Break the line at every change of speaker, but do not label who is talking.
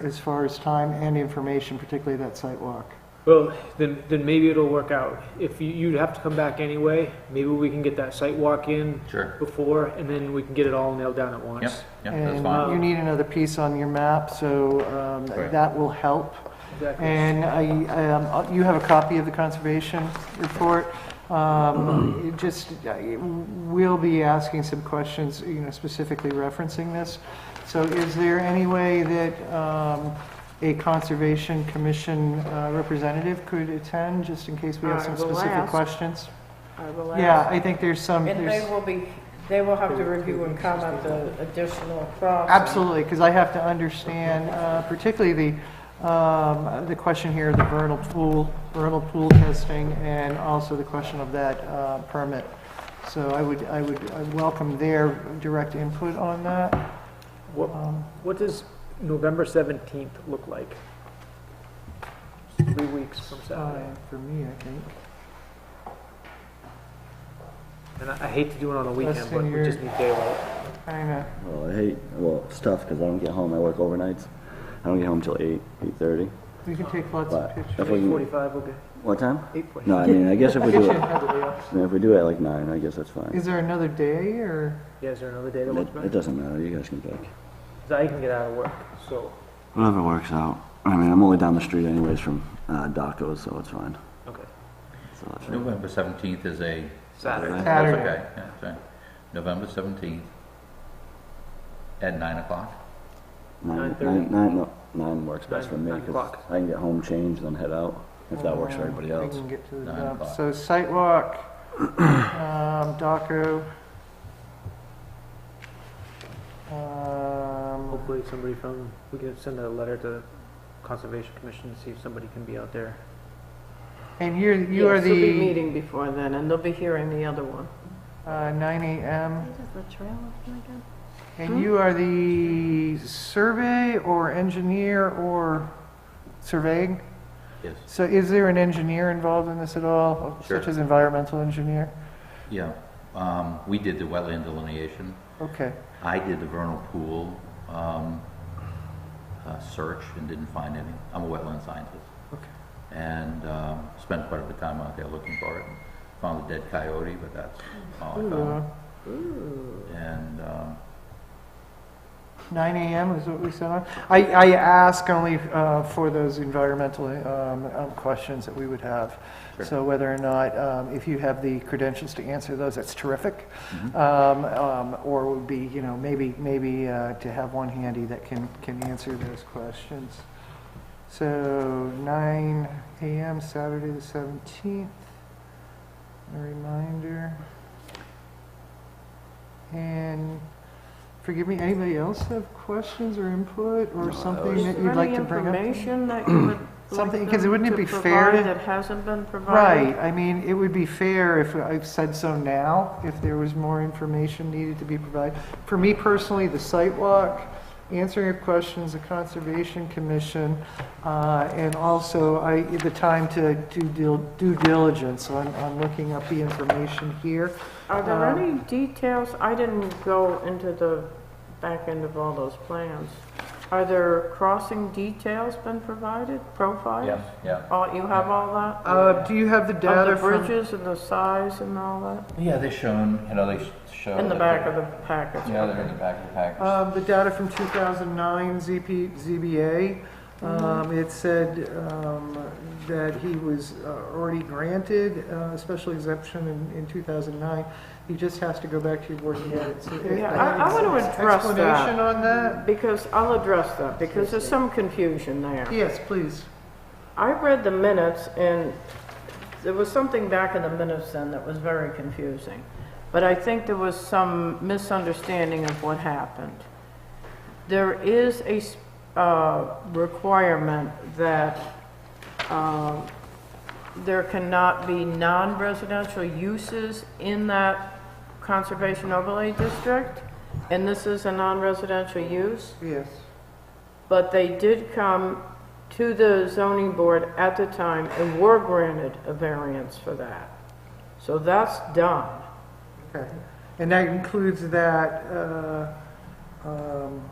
as far as time and information, particularly that sidewalk.
Well, then, then maybe it'll work out. If you, you'd have to come back anyway, maybe we can get that site walk in
Sure.
before, and then we can get it all nailed down at
Yep,
once.
yep, that's
And uh,
fine.
you need another piece on your map, so um,
Right.
that will help.
Exactly.
And I, um, uh, you have a copy of the conservation report. Um, it Just, uh, it- we'll be asking some questions, you know, specifically referencing this. So is there any way that um, a Conservation Commission uh, representative could attend, just in case we have
Uh,
some
well, I
specific
asked.
questions?
I will
Yeah,
ask.
I think there's some,
And
there's-
they will be, they will have to review and comment the additional crops.
Absolutely, because I have to understand, uh, particularly the, um, the question here, the vernal pool, vernal pool testing, and also the question of that uh, permit. So I would, I would I welcome their direct input on that.
What,
Um,
what does November seventeenth look like? Three weeks from
uh,
Saturday.
For me, I think.
And I I hate to do it on a
Less
weekend, but
than
we
your-
just need daylight.
I know.
Well, I hate, well, it's tough because I don't get home. I work overnights. I don't get home till 8, 8.30.
We can take lots of
But
pictures.
if we can,
Forty-five, okay,
what time?
eight forty.
No, I mean, I guess if we do it,
Yeah,
if we do it at like 9, I guess that's fine.
Is there another day, or?
is there another day that
It,
works
it
better?
doesn't matter. You guys can pick.
'Cause I can get out of work, so,
Whatever works out. I mean, I'm only down the street anyways from uh, Daco's, so it's fine.
okay.
So that's fine.
November 17th is a... oh,
Saturday.
That's
Saturday.
okay, yeah, that's right. November 17th at 9 o'clock.
Nine,
9:30?
nine, nine, no, nine works
Nine-
best for me
nine
because
o'clock.
I can get home, change, then head out if that works for
Um,
everybody
We
else.
can get to the
Nine
dump.
o'clock.
So sidewalk, um, Daco. Um,
Hopefully somebody from, we can send a letter to Conservation Commission to see if somebody can be out there.
and you're, you are
Yes, They'll be
the,
meeting before then, and they'll be hearing the other one.
uh, nine AM,
Does the trail look like a-
and
Hmm?
you are the survey or engineer or surveying?
Yes.
So is there an engineer involved in this at all,
Sure.
such as environmental engineer?
Yeah, um, we did the wetland delineation.
Okay,
I did the vernal pool um, uh, search and didn't find any. I'm a wetland scientist.
Okay.
And um, spent quite a bit of time out there looking for it. Found a dead coyote, but that's all I
Uh,
found. And um,
Nine AM is what we set on. I, I ask only uh, for those environmental um, um, questions that we would have.
Sure.
So whether or not, um, if you have the credentials to answer those, that's terrific.
Mm-hmm.
Um, um, Or would be, you know, maybe, maybe uh, to have one handy that can, can answer those questions. So nine AM, Saturday the seventeenth. A reminder. And Forgive me, anybody else have questions or input or something
Is
that
there
you'd like
any
to bring up?
information that you would like
Something- 'cause
them
wouldn't it
to
be fair to-
provide that hasn't been provided?
Right, I mean, it would be fair if I've said so now, if there was more information needed to be provided. For me personally, the site walk, answering your questions, the Conservation Commission, uh, and also I, the time to do dil- due diligence on, on looking up the information here.
Are there
Um,
any details, I didn't go into the back end of all those plans. Are there crossing details been provided, profiles?
yeah, yeah.
All, you have all that?
Uh, do you have the
Of
data
the
from?
bridges and the size and all that?
Yeah, they shown, you know, they sh- show.
In the
Oh,
that
back
they-
of the package?
Yeah, they're in the back of the package.
Um, the data from 2009 ZP, ZBA,
Mm-hmm.
um, it said, um, that he was uh, already granted, uh, special exemption in, in 2009. He just has to go back to your board and get it. So,
Yeah, I- I wanna
it's-
address that.
Explanation on that?
Because I'll address that, because there's some confusion there.
Yes, please.
I read the minutes, and there was something back in the minutes then that was very confusing. But I think there was some misunderstanding of what happened. There is a s- uh, requirement that um, there cannot be non-residential uses in that conservation overlay district, and this is a non-residential use.
Yes.
But they did come to the zoning board at the time and were granted a variance for that. So that's done.
Okay. And that includes that, uh, um,